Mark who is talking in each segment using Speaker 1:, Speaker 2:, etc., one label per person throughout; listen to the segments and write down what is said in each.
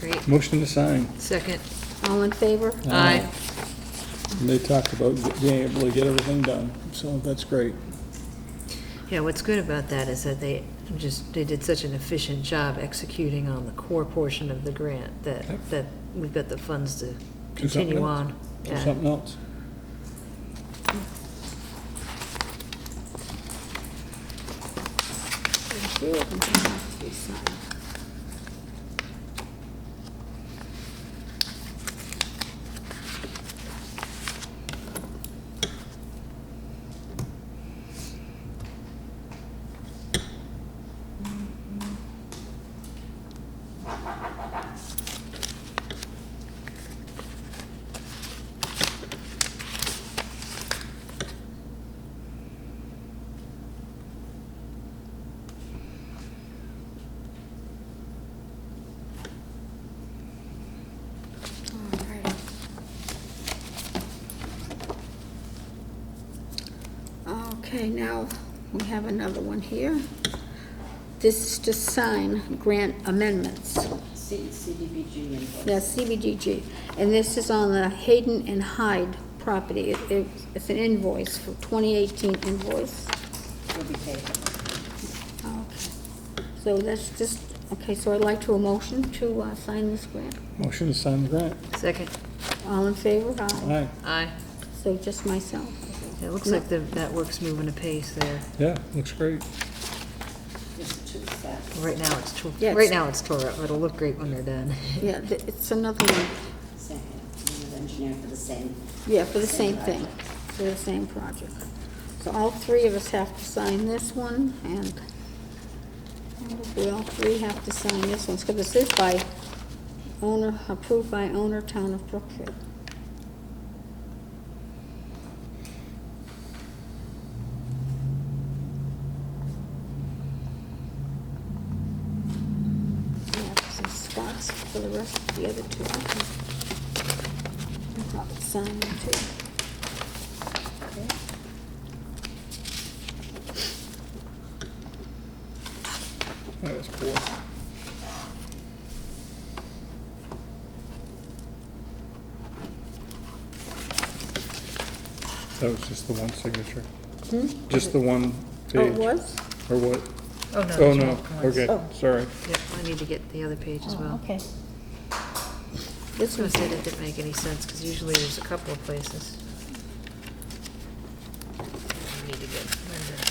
Speaker 1: Great,
Speaker 2: Motion to sign.
Speaker 1: second.
Speaker 3: All in favor?
Speaker 1: Aye.
Speaker 2: And they talked about being able to get everything done, so that's great.
Speaker 1: Yeah, what's good about that is that they just, they did such an efficient job executing on the core portion of the grant that,
Speaker 2: Yep.
Speaker 1: that we've got the funds to
Speaker 2: Do something
Speaker 1: continue
Speaker 2: else.
Speaker 1: on.
Speaker 2: Do
Speaker 1: Yeah.
Speaker 2: something else.
Speaker 3: Thank you. And then that's we sign. All right. Okay, now, we have another one here. This is to sign grant amendments.
Speaker 4: C- CDBG invoice.
Speaker 3: That's CBGG. And this is on the Hayden and Hyde property. It- it- It's an invoice for 2018 invoice.
Speaker 4: Will be taken.
Speaker 3: Okay. So that's just, okay, so I'd like to a motion to uh, sign this grant.
Speaker 2: Motion to sign the grant.
Speaker 1: Second,
Speaker 3: All in favor? Aye.
Speaker 2: Aye,
Speaker 1: aye.
Speaker 3: So just myself.
Speaker 1: It looks like the, that work's moving apace there.
Speaker 2: yeah, looks great.
Speaker 4: Just two sets.
Speaker 1: Right now, it's, tore-
Speaker 3: Yes.
Speaker 1: right now, it's tore up, but it'll look great when they're done.
Speaker 3: Yeah, th- it's another one,
Speaker 4: Same, I'm an engineer for the same.
Speaker 3: yeah, for the same thing,
Speaker 4: project.
Speaker 3: for the same project. So all three of us have to sign this one, and we all three have to sign this one, because this is by owner, approved by owner, Town of Brookfield. We have some spots for the rest of the other two. I can- I'll probably sign them too.
Speaker 2: That was cool. That was just the one signature. Just the one
Speaker 3: Hmm? Oh, it
Speaker 2: page.
Speaker 3: was?
Speaker 2: Or what?
Speaker 1: Oh, no.
Speaker 2: Oh,
Speaker 1: there's
Speaker 2: no,
Speaker 1: more cards.
Speaker 2: okay,
Speaker 3: Oh.
Speaker 2: sorry.
Speaker 1: Yep, I need to get the other page as well.
Speaker 3: Okay.
Speaker 1: This one said it didn't make any sense, because usually there's a couple of places. I need to get Linda.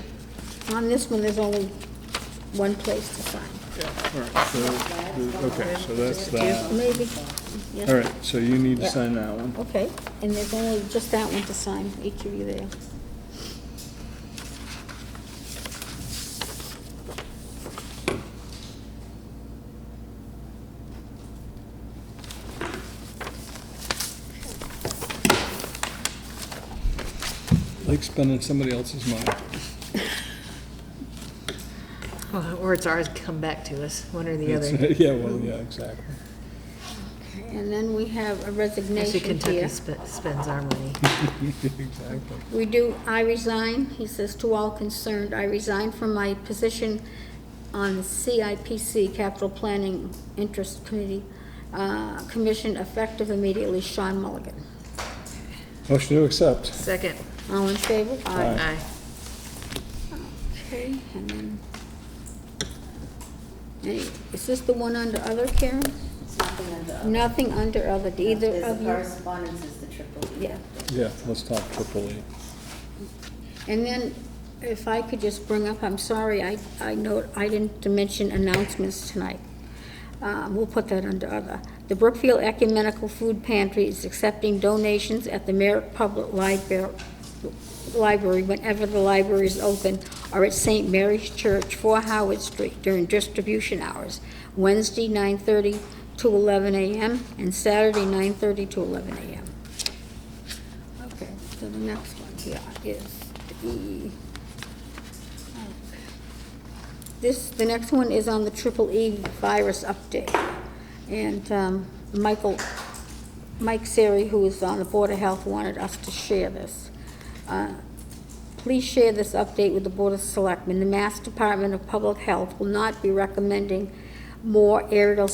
Speaker 2: Yeah.
Speaker 3: On this one, there's only one place to sign.
Speaker 2: All right, so, okay, so that's that.
Speaker 3: Maybe,
Speaker 2: All
Speaker 3: yes,
Speaker 2: right, so you need to
Speaker 3: Yeah.
Speaker 2: sign that one.
Speaker 3: okay. And there's only just that one to sign, each of you there.
Speaker 2: Like spending somebody else's money.
Speaker 1: Well, Or it's ours come back to us, one or the
Speaker 2: It's-
Speaker 1: other.
Speaker 2: Yeah, well, yeah, exactly.
Speaker 3: And then we have a
Speaker 1: Actually,
Speaker 3: resignation
Speaker 1: Kentucky
Speaker 3: here.
Speaker 1: spe- spends our money.
Speaker 2: Exactly.
Speaker 3: We do, I resign, he says, to all concerned, I resign from my position on the CIPC, Capital Planning Interest Committee, uh, Commission, effective immediately, Sean Mulligan.
Speaker 2: Motion to accept.
Speaker 1: Second,
Speaker 3: All in favor?
Speaker 2: Aye.
Speaker 1: aye.
Speaker 3: Okay, and then, Hey, is this the one under other, Karen?
Speaker 4: It's nothing under other.
Speaker 3: Nothing under other, do either
Speaker 4: Uh, There's
Speaker 3: of
Speaker 4: the
Speaker 3: you?
Speaker 4: correspondence is the triple E.
Speaker 3: Yeah.
Speaker 2: Yeah, let's talk triple E.
Speaker 3: And then, if I could just bring up, I'm sorry, I, I know, I didn't mention announcements tonight. Uh, we'll put that under other. The Brookfield Ecumenical Food Pantry is accepting donations at the Merritt Public Library, library whenever the library is open, or at St. Mary's Church, 4 Howard Street, during distribution hours, Wednesday, 9:30 to 11 a.m., and Saturday, 9:30 to 11 a.m. Okay, so the next one here is the... This, the next one is on the triple E virus update. And um, Michael, Mike Siri, who is on the Board of Health, wanted us to share this. Uh, Please share this update with the Board of Selectmen. The Mass Department of Public Health will not be recommending more aerial